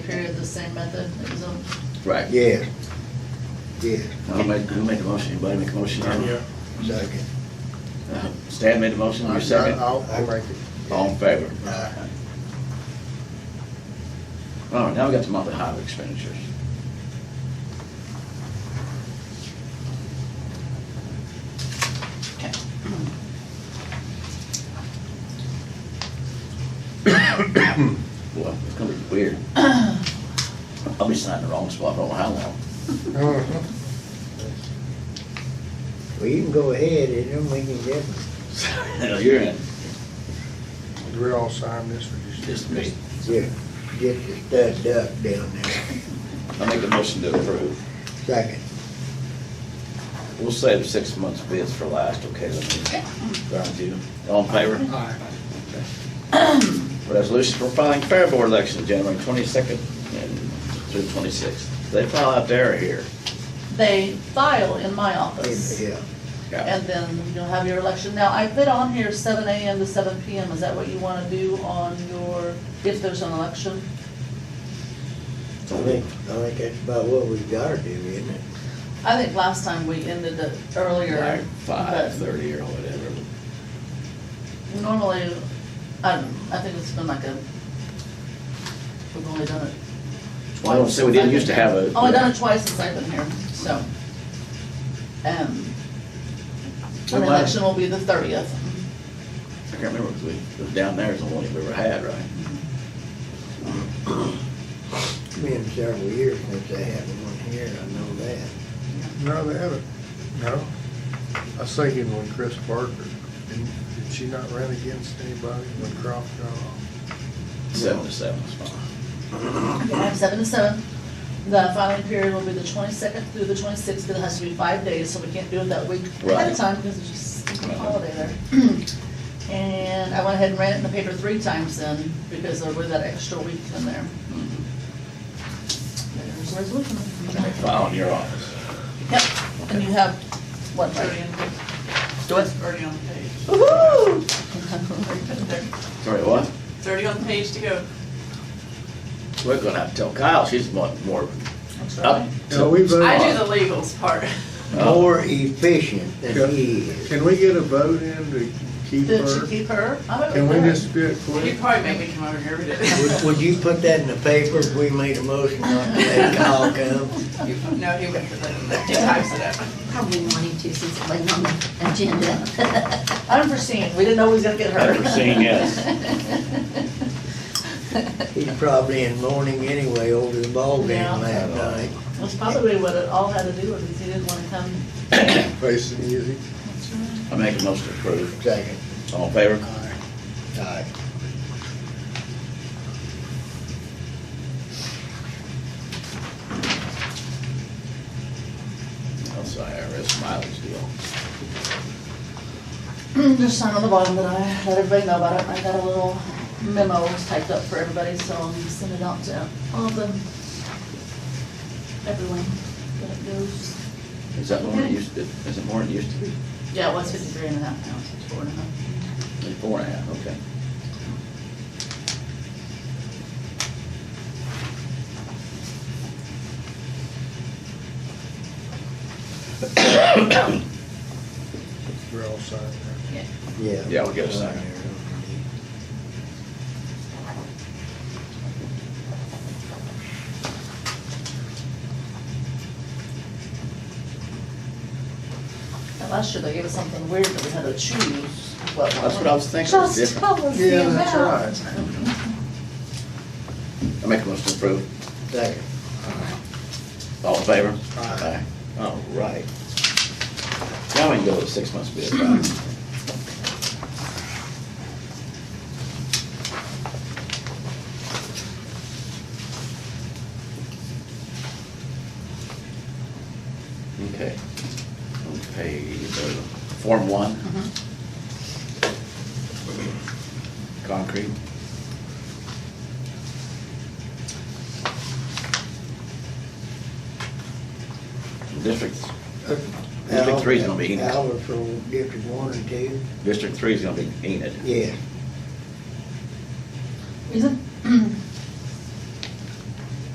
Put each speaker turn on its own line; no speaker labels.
through the same method as them.
Right.
Yeah, yeah,
I'll make, who made the motion? Anybody make a motion?
Yeah.
second.
Uh, Stan made the motion, you second?
I'll, I'll make it.
All in favor?
Aye.
All right, now we got the monthly highway expenditures. Okay. Well, it's gonna be weird. I'll be signing the wrong spot, I don't know how long.
Uh-huh. Well, you can go ahead, it don't make any difference.
No, You're in,
Do we all sign this or
just me.
Yeah, get the stud duck down there,
I make the motion to approve.
second.
We'll save six months bids for last, okay? Let me, all in favor?
Aye.
Resolution for filing fair board election, January 22nd and through 26th. They file out there or here?
They file in my office,
Yeah,
and then you'll have your election. Now, I put on here seven AM to seven PM, is that what you wanna do on your, if there's an election?
I think, I think that's about what we gotta do, isn't it?
I think last time we ended it earlier.
Like
but
5:30 or whatever.
Normally, I, don't know, I think it's been like a, we've only done it.
Well, I don't say we didn't used to have a.
Only done it twice since I've been here, so. Um, and the
Well, I-
election will be the thirtieth.
I can't remember, 'cause we, it was down there is the one we ever had, right?
It's been several years since they had one here, I know that.
No, they haven't. No. I was thinking when Chris Parker, didn't- did she not run against anybody when Croft got off?
Seven to seven is fine.
Okay, seven to seven. The filing period will be the twenty-second through the twenty-sixth, but it has to be five days, so we can't do it that week ahead
Right.
of time because it's just a
Right.
holiday there. And I went ahead and ran it in the paper three times then because there was that extra week in there. Mm-hmm. There's a resolution.
They file in your office.
Yep, and you have, what, thirty in?
So it's thirty on the page.
Woo-hoo!
Sorry, what?
Thirty on the page to go.
We're gonna have to tell Kyle, she's more, more up.
No, we
uh,
voted.
I do the legals part.
More efficient
Yeah.
than he is.
Can we get a vote in to keep
Did she
her?
keep her? I don't
Can we
know.
just do it
You'd
quick?
probably make me come over here every
Would,
day.
would you put that in the paper if we made a motion not to let Kyle come?
No, he wouldn't, he types it up.
Probably wanting to since it wasn't on the agenda.
Unforeseen, we didn't know we was gonna get her.
Unforeseen, yes.
He's probably in mourning anyway over the ball game
Yeah.
last night.
That's probably what it all had to do with, is he didn't wanna come.
Face it easy.
I make a motion to approve.
Second.
All in favor?
Aye. Aye.
That's the IRS mileage deal.
Mm, There's sign on the bottom that I let everybody know about it, I got a little memo typed up for everybody, so I'm gonna send it out to all the, everyone that it goes.
Is that more than it used to, is it more than it used to be?
Yeah, it was fifty-three and a half pounds, it's four and a half.
It's Four and a half, okay.
We're all signed now.
Yeah.
Yeah, we'll get a second.
And last year they gave us something weird that we had to choose what one.
That's what I was thinking, it's
Just
different.
tell us the
Yeah,
amount.
that's right.
I make a motion to approve.
Second.
All in favor?
Aye.
Aye. All right. Now we can go to six months bid, right? Okay. Okay, uh, Form One. Concrete. District, District Three is gonna be Enid.
Albert from District One and Two,
District Three is gonna be Enid.
yeah.
Isn't